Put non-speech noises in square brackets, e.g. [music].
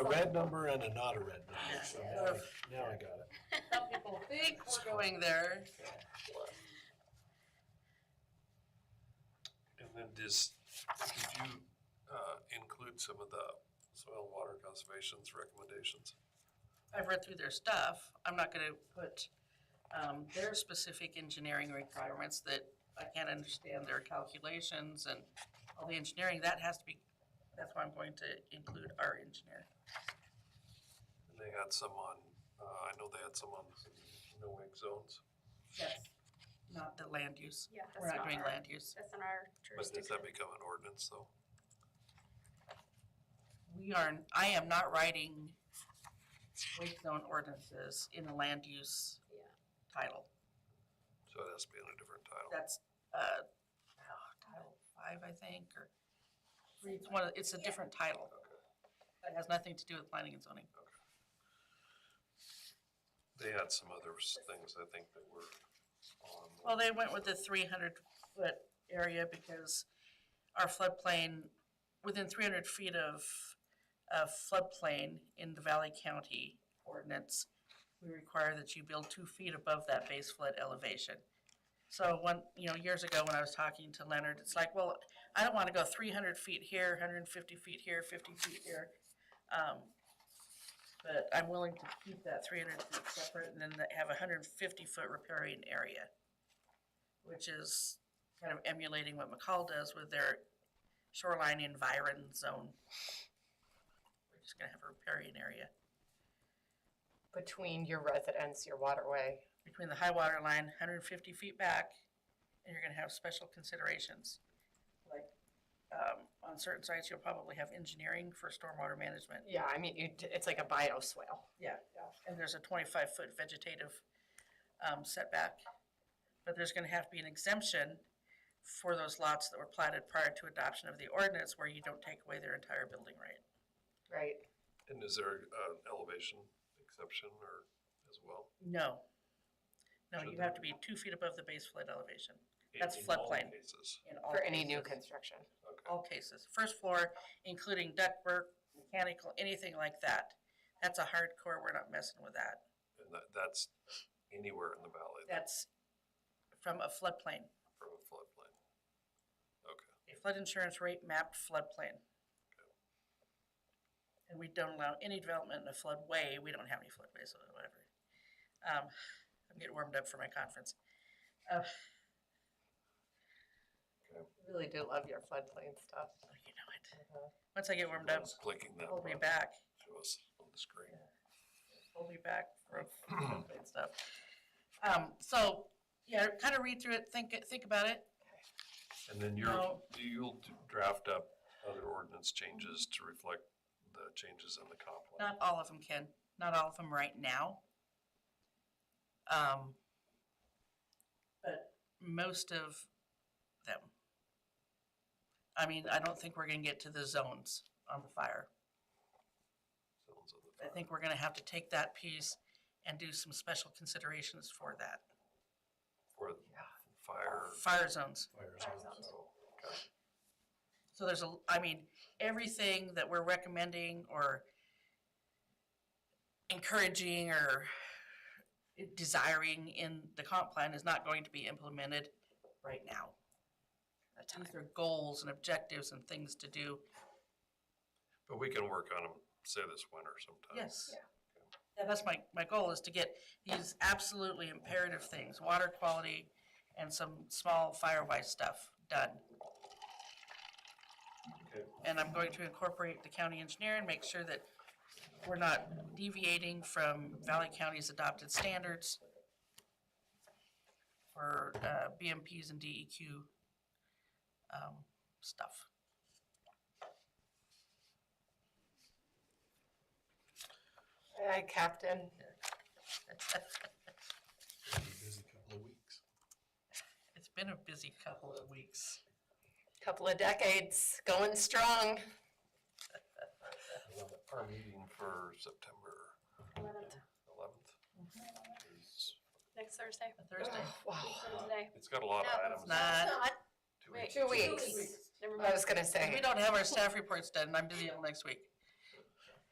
a red number and a not a red number, so Yeah. now, I- now I got it. Some people think we're going there. And then does, did you uh, include some of the soil and water conservation's recommendations? I've read through their stuff. I'm not gonna put, um, their specific engineering requirements that I can't understand their calculations and all the engineering, that has to be, that's why I'm going to include our engineer. And they had some on, uh, I know they had some on no wake zones, Yes. Not the land use. Yeah, that's We're not not doing our, land use. that's not our but does that jurisdiction. become an ordinance though? We are, I am not writing wake zone ordinances in the land use Yeah. title. So it has to be in a different title. That's, uh, oh, title five, I think, or it's one, of- it's a different title. That has nothing to do with planning and zoning. They had some other s- things I think that were on. Well, they went with the three hundred foot area because our floodplain, within three hundred feet of, of floodplain in the Valley County ordinance, we require that you build two feet above that base flood elevation. So one, you know, years ago when I was talking to Leonard, it's like, well, I don't wanna go three hundred feet here, hundred and fifty feet here, fifty feet here. Um, But I'm willing to keep that three hundred feet separate and then have a hundred and fifty foot riparian area which is kind of emulating what McCall does with their shoreline environ zone. We're just gonna have a riparian area between your residence, your waterway. between the high water line, hundred and fifty feet back, and you're gonna have special considerations. Like, um, on certain sites, you'll probably have engineering for stormwater management. Yeah, I mean, you, it's like a bioswale. Yeah. And there's a twenty-five foot vegetative, um, setback. But there's gonna have to be an exemption for those lots that were platted prior to adoption of the ordinance where you don't take away their entire building right. Right. And is there an elevation exception or as well? No. No, Should you there have to be? be two feet above the base flood elevation That's In all floodplain. Oh. Cases, in all For any new cases. construction. okay. All cases, first floor, including ductwork, mechanical, anything like that. That's a hardcore, we're not messing with that. And that, that's anywhere in the valley then, That's from a floodplain, from a floodplain. Okay, a flood insurance rate mapped floodplain. And we don't allow any development in a floodway, we don't have any floodways or whatever. Um, I'm getting warmed up for my conference. Uh, okay. Really do love your floodplain stuff. oh, You know it. Mm-hmm. Once I get warmed up, Just Clicking that hold me button. back. Show us on the screen. we'll be back for and stuff. Um, so, yeah, kind of read through it, think, it- think about it. And then you're, No. you'll draft up other ordinance changes to reflect the changes in the comp plan. Not all of them, Ken, not all of them right now. Um, but most of them. I mean, I don't think we're gonna get to the zones on the fire. Sounds on the I think we're gonna have to take that piece and do some special considerations for that. For the fire. Fire zones. Fire Fire zones. zones. so, okay. So there's a, I mean, everything that we're recommending or encouraging or desiring in the comp plan is not going to be implemented right now. These are goals and objectives and things to do. But we can work on them, say this winter sometime. Yes. Yeah. Yeah, that's my, my goal is to get these absolutely imperative things, water quality and some small firewise stuff done. Okay. And I'm going to incorporate the county engineer and make sure that we're not deviating from Valley County's adopted standards for uh, BMPs and DEQ um, stuff. [laughs] Hi, Captain. It'll be a Busy couple of weeks. It's been a busy couple of weeks. Couple of decades, going strong. Our meeting for September Eleventh, eleventh. is- next Thursday, Thursday, [sighs] Wow. from today. It's got a lot of No, items. it's not. Two Wait, weeks. Two weeks. Never I mind. was gonna we say, don't have our staff reports done, and I'm busy all next week.